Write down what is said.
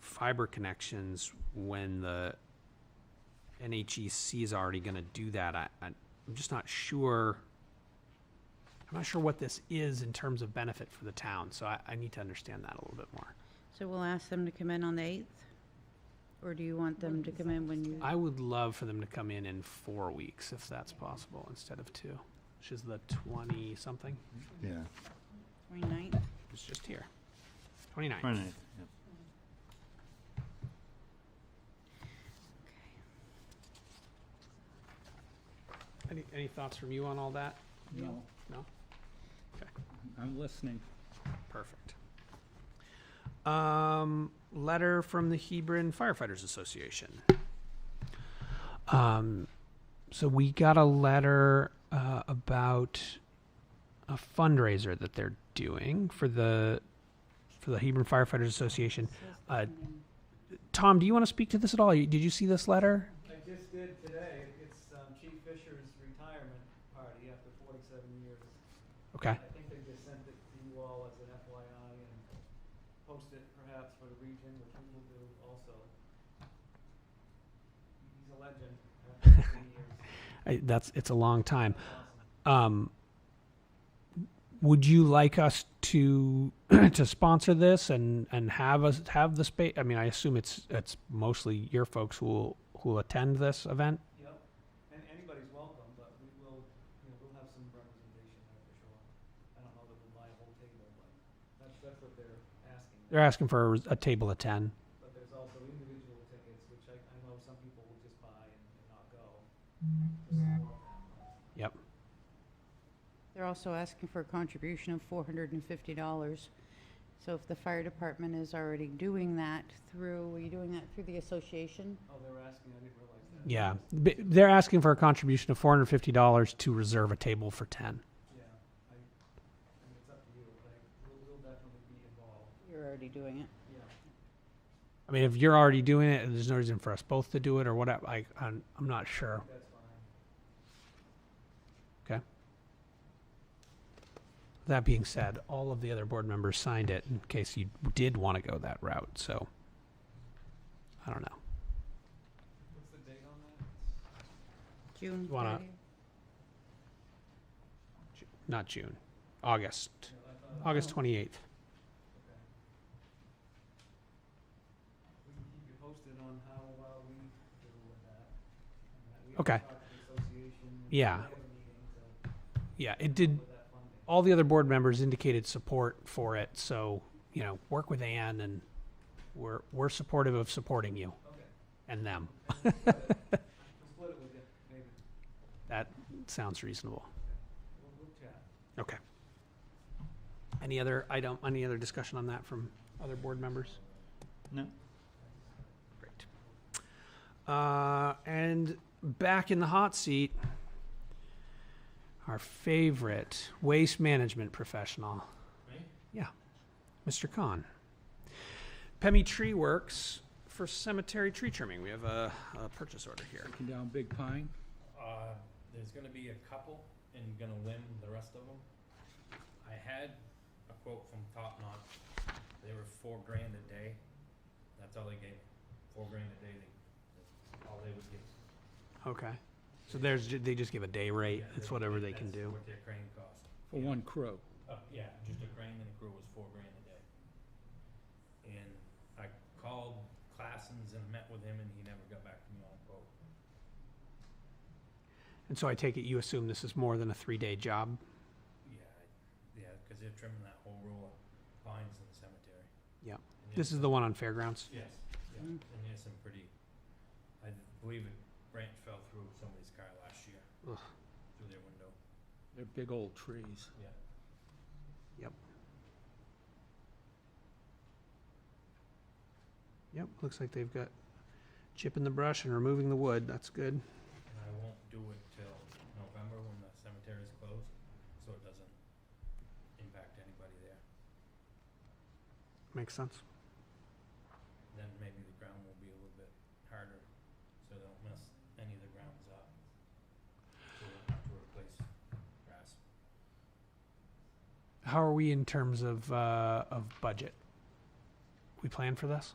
fiber connections when the NHEC is already gonna do that, I, I- I'm just not sure. I'm not sure what this is in terms of benefit for the town, so I, I need to understand that a little bit more. So we'll ask them to come in on the 8th? Or do you want them to come in when you, I would love for them to come in in four weeks, if that's possible, instead of two, which is the twenty-something, Yeah. 29th? it's just here. Twenty-nine. Right, yeah. Any, any thoughts from you on all that? No, No? Okay. I'm listening. Perfect. Um, letter from the Hebron Firefighters Association. Um, so we got a letter uh, about a fundraiser that they're doing for the for the Hebron Firefighters Association. Uh, Tom, do you want to speak to this at all? You- Did you see this letter? I just did today. It's um, Chief Fisher's retirement party after 47 years. Okay. I think they just sent it to you all as an FYI and post it perhaps for the region, which we will do also. He's a legend after 15 years. I, that's it's a long time. Awesome. um, would you like us to to sponsor this and and have us have the space? I mean, I assume it's it's mostly your folks who will who will attend this event. Yep. And anybody's welcome, but we will, you know, we'll have some representation there for sure. I don't know that we'll buy a whole table, but that's, that's what they're asking. They're asking for a, table of ten. But there's also individual tickets, which I, I know some people will just buy and, and not go. to support them. Yep. They're also asking for a contribution of $450. So if the fire department is already doing that through, are you doing that through the association? Oh, they were asking, I didn't realize Yeah, that. B- they're asking for a contribution of four hundred fifty dollars to reserve a table for ten. Yeah, I, I mean, it's up to you, but I, we'll, we'll definitely be involved, You're already doing it. yeah. I mean, if you're already doing it, and there's no reason for us both to do it or whatever. I I'm, I'm not sure. That's fine. That being said, all of the other board members signed it in case you did want to go that route. So I don't know. What's the date on that? June Wanna- 30th? Not June, August, No, I thought- August Oh. 28th. Okay. We can keep you posted on how well we do with that. and that we have to Okay. talk to the Association. and Yeah. we have a meeting to Yeah, it did. with that funding. All the other board members indicated support for it. So, you know, work with Ann and we're, we're supportive of supporting you Okay. and them. We'll split it. We'll split it with you, maybe. That sounds reasonable. We'll, we'll chat. Okay. Any other item, any other discussion on that from other board members? No. Great. Uh, and back in the hot seat, our favorite waste management professional. Yeah, Mr. Khan. Pemmy Tree Works for cemetery tree trimming. We have a, a purchase order here. Taking down Big Pine. Uh, there's gonna be a couple and gonna limb the rest of them. I had a quote from Top Knot, they were four grand a day, that's all they gave, four grand a day, they, that's all they would give. Okay. So there's, ju- they just give a day rate. Yeah, It's they- whatever they can that's do. what their crane cost. for one crew. Uh, yeah, just a crane and a crew was four grand a day. And I called Classens and met with him and he never got back to me on a quote. And so I take it you assume this is more than a three-day job? Yeah, I- yeah, cause they're trimming that whole row of pines in the cemetery. Yeah. And This it's- is the one on Fairgrounds? Yes, yeah, Mm. and there's some pretty, I believe a branch fell through somebody's car last year. Ugh. Through their window, They're big old trees. yeah. Yep, looks like they've got chipping the brush and removing the wood. That's good. And I won't do it till November when the cemetery is closed, so it doesn't impact anybody there. Makes sense. Then maybe the ground will be a little bit harder, so they don't mess any of the grounds up. So we don't have to replace grass. How are we in terms of uh, of budget? We plan for this?